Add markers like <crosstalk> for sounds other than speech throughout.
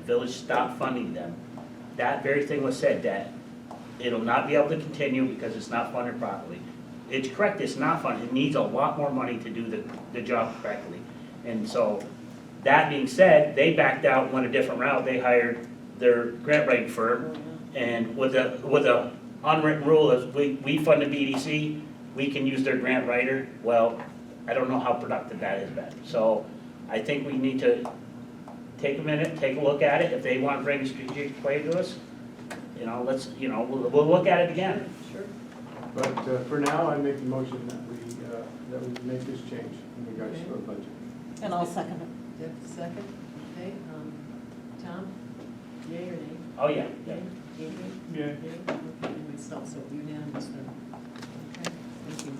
village stopped funding them. That very thing was said, that it'll not be able to continue because it's not funded properly. It's correct, it's not funded, it needs a lot more money to do the, the job correctly. And so, that being said, they backed out, went a different route, they hired their grant writing firm. And with a, with a unwritten rule is we, we fund the BDC, we can use their grant writer. Well, I don't know how productive that has been. So I think we need to take a minute, take a look at it. If they want to bring a strategic plan to us, you know, let's, you know, we'll, we'll look at it again. Sure. But uh, for now, I make the motion that we, uh, that we make this change in regards to our budget. And I'll second it. Deb, second. Okay, um, Tom, yay or nay? Oh, yeah, yeah. Jamie? Yay? Yeah. Okay, and myself, so unanimous then. Okay, thank you.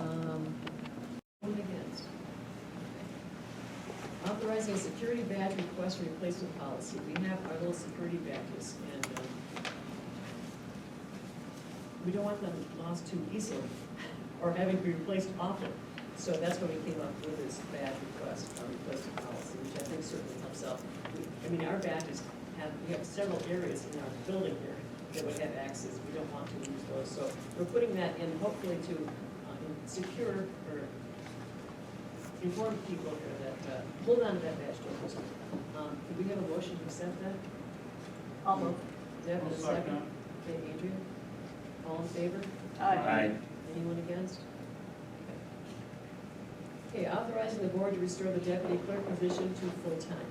Um, Vote against. Okay. Authorizing a security badge request replacement policy. We have our little security badges and um, we don't want them lost too easily or having to be replaced often. So that's when we came up with this badge request, or replacement policy, which I think certainly helps out. I mean, our badges have, we have several areas in our building here that would have access, we don't want to lose those. So we're putting that in hopefully to uh, secure or inform people here that, uh, hold on to that badge, don't lose it. Um, Do we have a motion to accept that? I'll move. Deb, a second? Okay, Adrian? All in favor? I, Anyone against? Okay, authorizing the board to restore the deputy clerk position to full-time.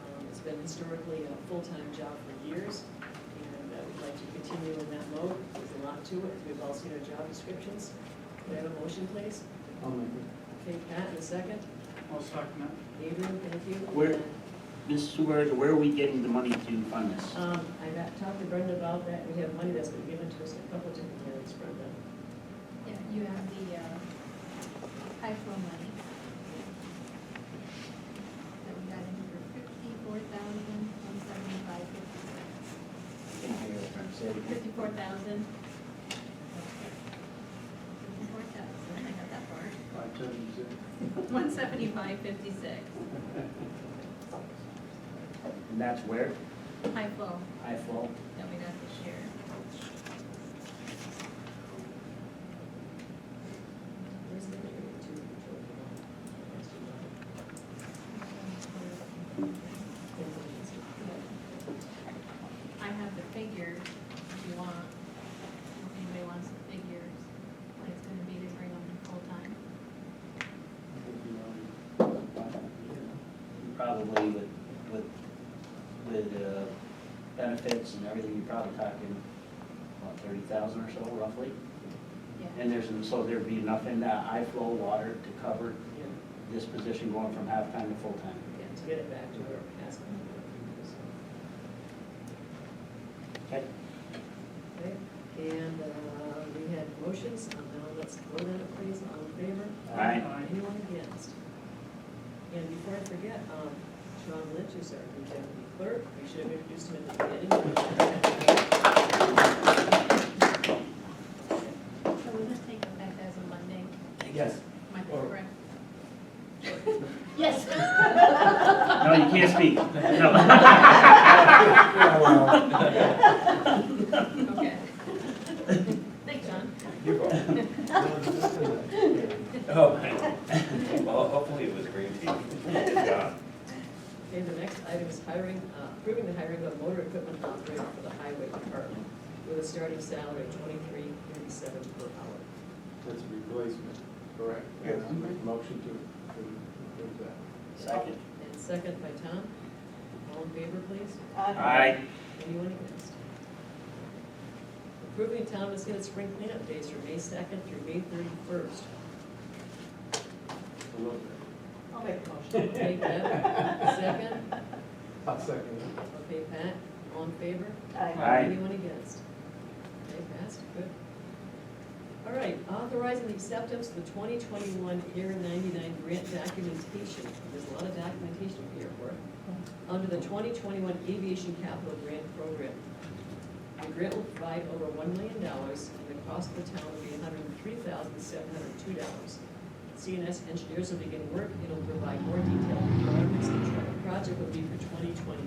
Um, It's been historically a full-time job for years, and I would like to continue in that mode. There's a lot to it, we've all seen our job descriptions. Could I have a motion, please? I'll make it. Okay, Pat, in a second. I'll second Adrian, thank you. Where- Mrs. Suarez, where are we getting the money to fund this? Um, I got- talked to Brenda about that, we have money that's been given to us in a couple of different areas, Brenda. Yeah, you have the uh, high flow money. That we got in for fifty-four thousand, one seventy-five, fifty-six. Fifty-four thousand. Fifty-four thousand, I got that far. Five times, uh, One seventy-five, fifty-six, And that's where high flow I fall. that we got this year. Where's the area to control the law? I have the figures, if you want, if anybody wants the figures, what it's gonna be to bring them in full-time. I think we already- Probably with, with, with uh, benefits and everything, you're probably talking, what, thirty thousand or so roughly? Yeah. And there's, so there'd be enough in that high flow water to cover Yeah, this position going from half-time to full-time. yeah, to get it back to where it has been. Okay. Okay, and uh, we had motions, um, now let's vote on it, please, all in favor? Aye. Aye. Anyone against? And before I forget, um, Sean Lynch is our new deputy clerk, we should have introduced him at the beginning. So we'll just take effect as of Monday, Yes. my Or- correct? Yes. <laughs> No, you can't speak. No. Yeah, well, Okay. Thanks, John. you're welcome. Oh, <laughs> well, hopefully it was green tea. Yeah. Okay, the next item is hiring, uh, approving the hiring of a motor equipment operator for the highway department with a starting salary of twenty-three thirty-seven per hour. That's a replacement, correct? Yes. And I'll make a motion to to approve that. <laughs> Second. And second by Tom. All in favor, please? Aye. Anyone against? Approving town of Muscat's spring cleanup days from May second through May thirty-first. I love that. I'll make a motion. Okay, Deb, second. I'll second it. Okay, Pat, all in favor? Aye. Anyone against? Okay, passed, good. All right, authorizing the acceptance of the twenty twenty-one Air ninety-nine grant documentation. There's a lot of documentation here for it. Under the twenty twenty-one Aviation Capital Grant Program. The grant will provide over one million dollars and the cost of the town will be hundred and three thousand seven hundred and two dollars. CNS engineers will begin work. It'll provide more detailed requirements and tra- project for twenty twenty